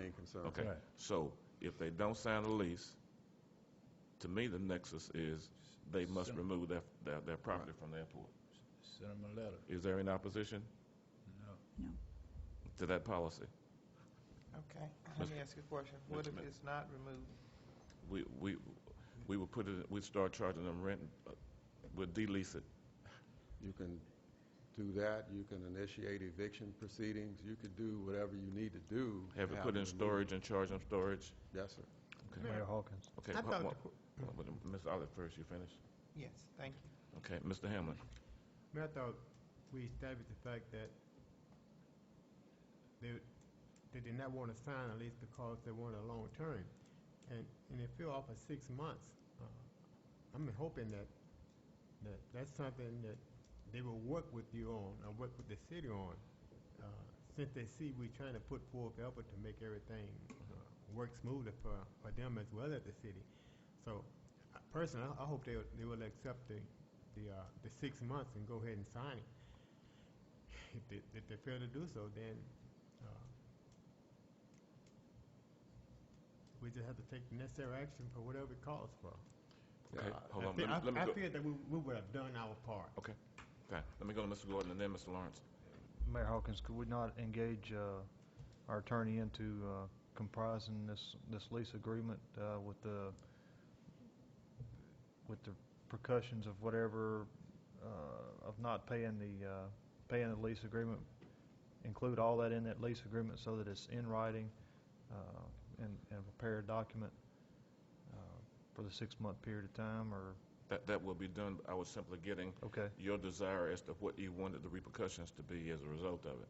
concerned. Okay, Right. so if they don't sign a lease, to me, the nexus is they must Send- remove their, their, their property from the airport. Send them a letter. Is there any opposition No. to that policy? Okay, let me ask you a question. What if Mr. Ma- it's not removed? We, we, we would put it, we'd start charging them rent, uh, we'd de-lease it. You can do that, you can initiate eviction proceedings, you could do whatever you need to do. to Have it put in removed. storage and charge them storage? Yes, sir. Okay. Mayor Hawkins. Okay, I hold- thought one- the- one- but Ms. Olive first, you finish? Yes, thank you. Okay, Mr. Hamlin, Mayor, I thought we established the fact that they, they did not want to sign a lease because they wanted a long term. And, and they fell off for six months. Uh, I'm hoping that, that that's something that they will work with you on, or work with the city on, uh, since they see we're trying to put forth effort to make everything uh, work smoother for, for them as well as the city. So, uh, personally, I I hope they, they will accept the, the, uh, the six months and go ahead and sign it. If they, if they fail to do so, then, uh, we just have to take the necessary action for whatever it calls for. okay, Uh, hold I on, fe- let me, I- let me I go, feel that we, we would have done our part. okay, let me go to Mr. Gordon and then Mr. Lawrence. Mayor Hawkins, could we not engage uh, our attorney into uh, comprising this, this lease agreement uh, with the, with the percussions of whatever, uh, of not paying the, uh, paying the lease agreement? Include all that in that lease agreement so that it's in writing uh, and, and prepare a document uh, for the six-month period of time, or, That, that will be done, I was simply getting okay, your desire as to what you wanted the repercussions to be as a result of it.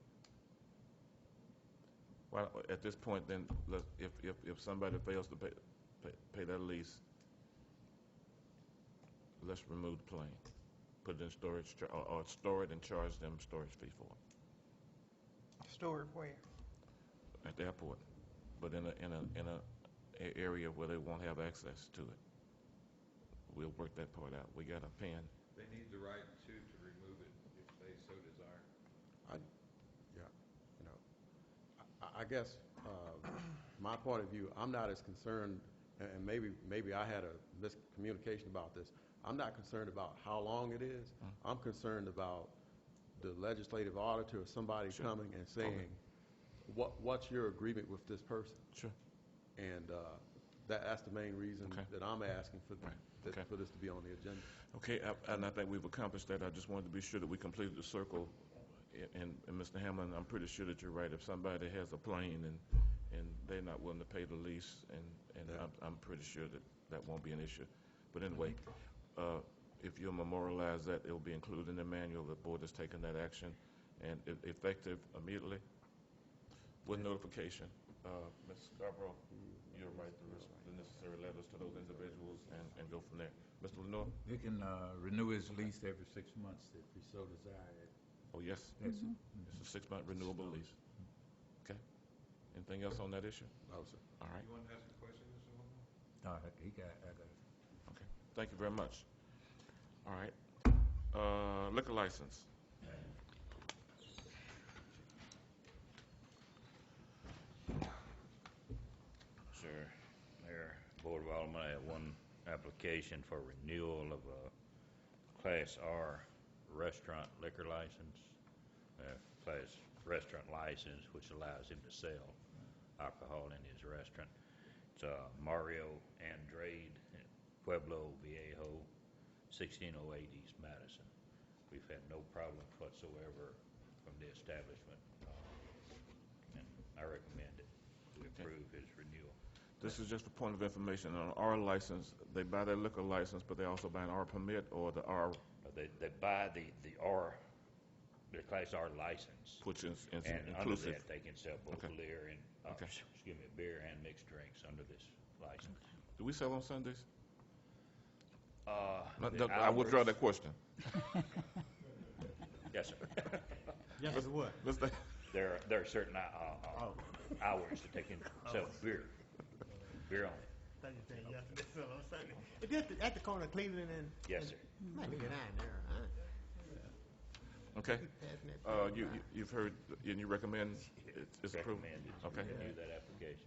Well, at this point, then, let- if, if, if somebody fails to pay, pay- pay that lease, let's remove the plane, put it in storage, char- or, or store it and charge them storage fee for Stored where? it at the airport, but in a, in a, in a, a area where they won't have access to it. We'll work that part out. We got a pen. They need the right to, to remove it if they so desire. I- I guess, uh, my point of view, I'm not as concerned, and- and maybe, maybe I had a miscommunication about this. I'm not concerned about how long it is. Mm. I'm concerned about the legislative auditor or somebody Sure. coming and saying, what, what's your agreement with this person? Sure. And uh, that, that's the main reason Okay. that I'm asking for, th- Right, that- okay. for this to be on the agenda. Okay, I- and I think we've accomplished that. I just wanted to be sure that we completed the circle. A- And, and Mr. Hamlin, I'm pretty sure that you're right. If somebody has a plane and, and they're not willing to pay the lease, and, and Yeah. I'm, I'm pretty sure that that won't be an issue. But anyway, uh, if you'll memorialize that, it'll be included in the manual. The board has taken that action, and e- effective immediately with notification. Uh, Ms. Scarborough, you'll write the res- the necessary letters to those individuals and, and go from there. Mr. Lenore? They can uh, renew his lease every six months if he so desire. Oh, yes, That's it. it's a six-month renewable lease. Okay. Anything else on that issue? No, sir. All right, want to ask a question, Mr. No, I- he got, I got it. thank you very much. All right, Uh, liquor license. Sir, Mayor, Board of Aldermen, I have one application for renewal of a Class R restaurant liquor license, uh, Class restaurant license, which allows him to sell alcohol in his restaurant. It's uh, Mario Andrade, Pueblo Viejo, 1608 East Madison. We've had no problems whatsoever from the establishment, uh, and I recommend it. We approve his renewal. This is just a point of information, on our license, they buy their liquor license, but they also buy an R permit or the R, Uh, They, they buy the, the R, their Class R license, which is is and under inclusive. that, they can sell both Okay. beer and, uh, Okay. excuse me, beer and mixed drinks under this license. Do we sell on Sundays? Uh, No, the no, I withdraw hours- that question. Yes, sir. yes, it would. Mr. There, are- there are certain, uh, uh, Oh. hours that they can sell beer, beer only. Thought you said yes, that's what I'm saying. It's at the, at the corner of Cleveland and. Yes, sir. Might get on there, huh? Okay, Passing that Uh, thing you, by. you- you've heard, and you recommend it's- it's approved? Recommend it. Okay. Renew that application.